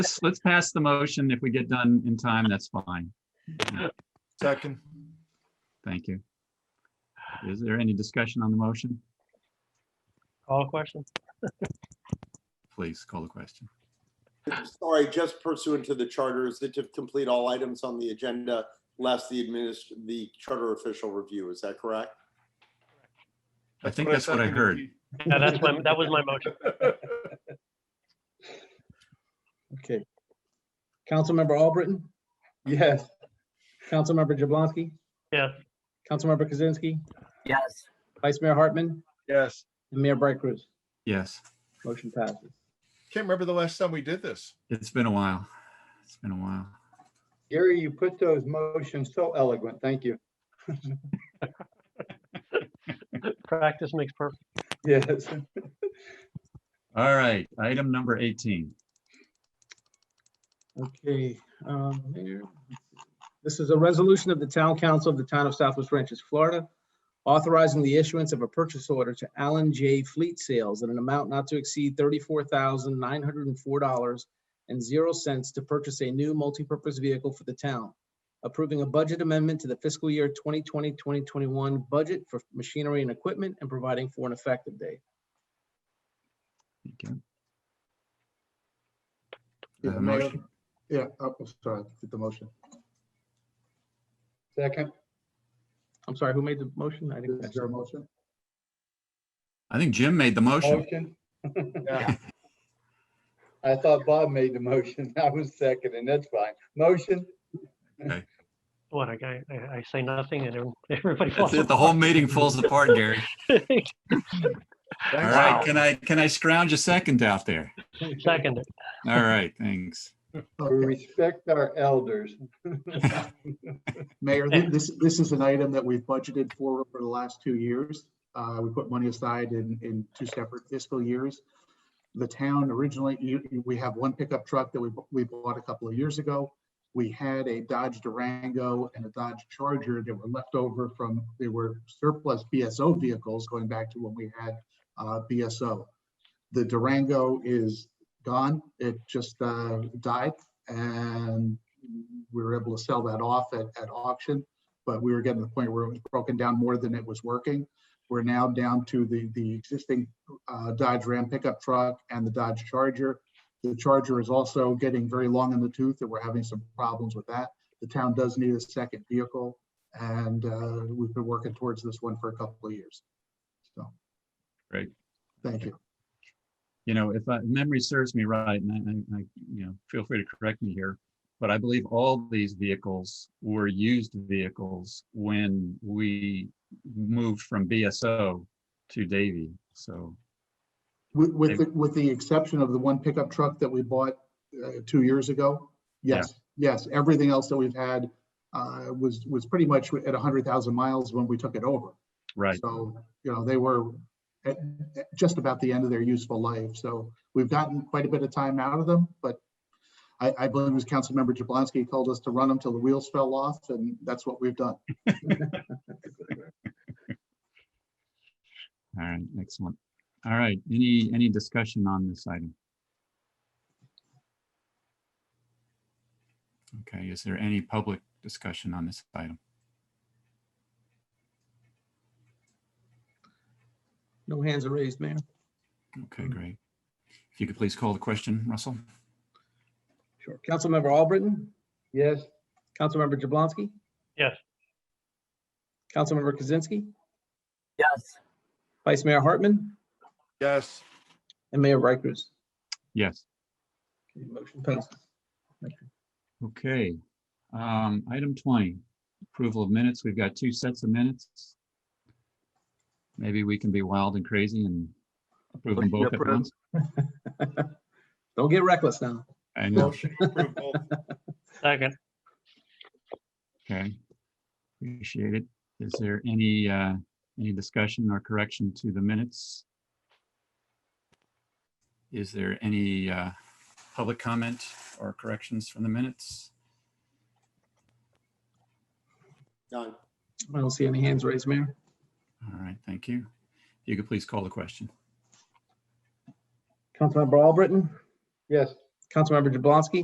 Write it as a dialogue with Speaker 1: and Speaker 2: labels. Speaker 1: let's, let's pass the motion. If we get done in time, that's fine.
Speaker 2: Second.
Speaker 1: Thank you. Is there any discussion on the motion?
Speaker 3: All questions?
Speaker 1: Please call the question.
Speaker 4: Sorry, just pursuant to the charter, is it to complete all items on the agenda less the administr, the charter official review, is that correct?
Speaker 1: I think that's what I heard.
Speaker 3: Yeah, that's my, that was my motion.
Speaker 5: Okay. Councilmember Albritton,
Speaker 6: Yes.
Speaker 5: Councilmember Jablonski,
Speaker 3: Yes,
Speaker 5: Councilmember Kaczynski,
Speaker 7: yes,
Speaker 5: Vice Mayor Hartman,
Speaker 6: Yes.
Speaker 5: and Mayor Bright Cruz.
Speaker 1: Yes,
Speaker 5: Motion passes.
Speaker 2: Can't remember the last time we did this.
Speaker 1: it's been a while. It's been a while.
Speaker 6: Gary, you put those motions so eloquent. Thank you.
Speaker 3: practice makes perfect.
Speaker 6: Yes.
Speaker 1: All right, item number 18.
Speaker 5: Okay, um, Mayor, this is a resolution of the Town Council of the Town of Southwest Ranches, Florida, authorizing the issuance of a purchase order to Allen J. Fleet Sales in an amount not to exceed thirty-four thousand nine hundred and four dollars and zero cents to purchase a new multipurpose vehicle for the town, approving a budget amendment to the fiscal year 2020-2021 budget for machinery and equipment and providing for an effective date.
Speaker 1: Thank you.
Speaker 6: Yeah,
Speaker 1: Uh,
Speaker 6: Mayor.
Speaker 1: motion.
Speaker 6: Yeah, oh, I'm sorry, get the motion. Second,
Speaker 5: I'm sorry, who made the motion? I didn't
Speaker 6: is
Speaker 5: catch
Speaker 6: there a
Speaker 5: it.
Speaker 6: motion?
Speaker 1: I think Jim made the motion.
Speaker 6: Motion?
Speaker 2: Yeah.
Speaker 6: I thought Bob made the motion. I was second, and that's fine. Motion?
Speaker 3: What, I, I, I say nothing and everyone- everybody
Speaker 1: That's
Speaker 3: falls.
Speaker 1: it. The whole meeting falls apart, Gary.
Speaker 3: apart.
Speaker 1: All
Speaker 2: Thanks.
Speaker 1: right, can I, can I scrounge a second out there?
Speaker 3: Second, it.
Speaker 1: All right, thanks.
Speaker 6: We respect our elders.
Speaker 8: Mayor, thi- this, this is an item that we've budgeted for for the last two years. Uh, we put money aside in, in two separate fiscal years. The town originally, you, you- we have one pickup truck that we, bu- we bought a couple of years ago. We had a Dodge Durango and a Dodge Charger that were left over from, they were surplus BSO vehicles going back to when we had, uh, BSO. The Durango is gone. It just, uh, died and we were able to sell that off at, at auction, but we were getting to the point where it was broken down more than it was working. We're now down to the, the existing uh, Dodge Ram pickup truck and the Dodge Charger. The Charger is also getting very long in the tooth and we're having some problems with that. The town does need a second vehicle and uh, we've been working towards this one for a couple of years. So.
Speaker 1: Great.
Speaker 8: Thank you.
Speaker 1: you know, if I- memory serves me right, and I- I, I, you know, feel free to correct me here, but I believe all these vehicles were used vehicles when we moved from BSO to Davy. So,
Speaker 8: With, with, the- with the exception of the one pickup truck that we bought uh, two years ago,
Speaker 1: Yeah.
Speaker 8: yes, yes, everything else that we've had uh, was, was pretty much at 100,000 miles when we took it over.
Speaker 1: right,
Speaker 8: So, you know, they were at at just about the end of their useful life. So we've gotten quite a bit of time out of them, but I, I believe it was Councilmember Jablonski told us to run them till the wheels fell off, and that's what we've done.
Speaker 1: all right, excellent. All right, any, any discussion on this item? Okay, is there any public discussion on this item?
Speaker 5: No hands are raised, Mayor.
Speaker 1: Okay, great. If you could please call the question, Russell?
Speaker 5: Sure. Councilmember Albritton?
Speaker 6: Yes,
Speaker 5: Councilmember Jablonski?
Speaker 3: Yes.
Speaker 5: Councilmember Kaczynski,
Speaker 7: yes,
Speaker 5: Vice Mayor Hartman,
Speaker 2: Yes,
Speaker 5: and Mayor Bright Cruz.
Speaker 1: Yes.
Speaker 5: Okay, Motion passes.
Speaker 1: Okay, um, item twenty, approval of minutes. We've got two sets of minutes. Maybe we can be wild and crazy and approve them both at once.
Speaker 5: Don't get reckless now.
Speaker 1: I know,
Speaker 2: motion to approve both.
Speaker 3: second,
Speaker 1: okay. Appreciate it. Is there any, uh, any discussion or correction to the minutes? Is there any, uh, public comment or corrections from the minutes?
Speaker 4: None.
Speaker 5: I don't see any hands raised, Mayor.
Speaker 1: All right, thank you. If You could please call the question.
Speaker 5: Councilmember Albritton?
Speaker 6: yes,
Speaker 5: Councilmember Jablonski.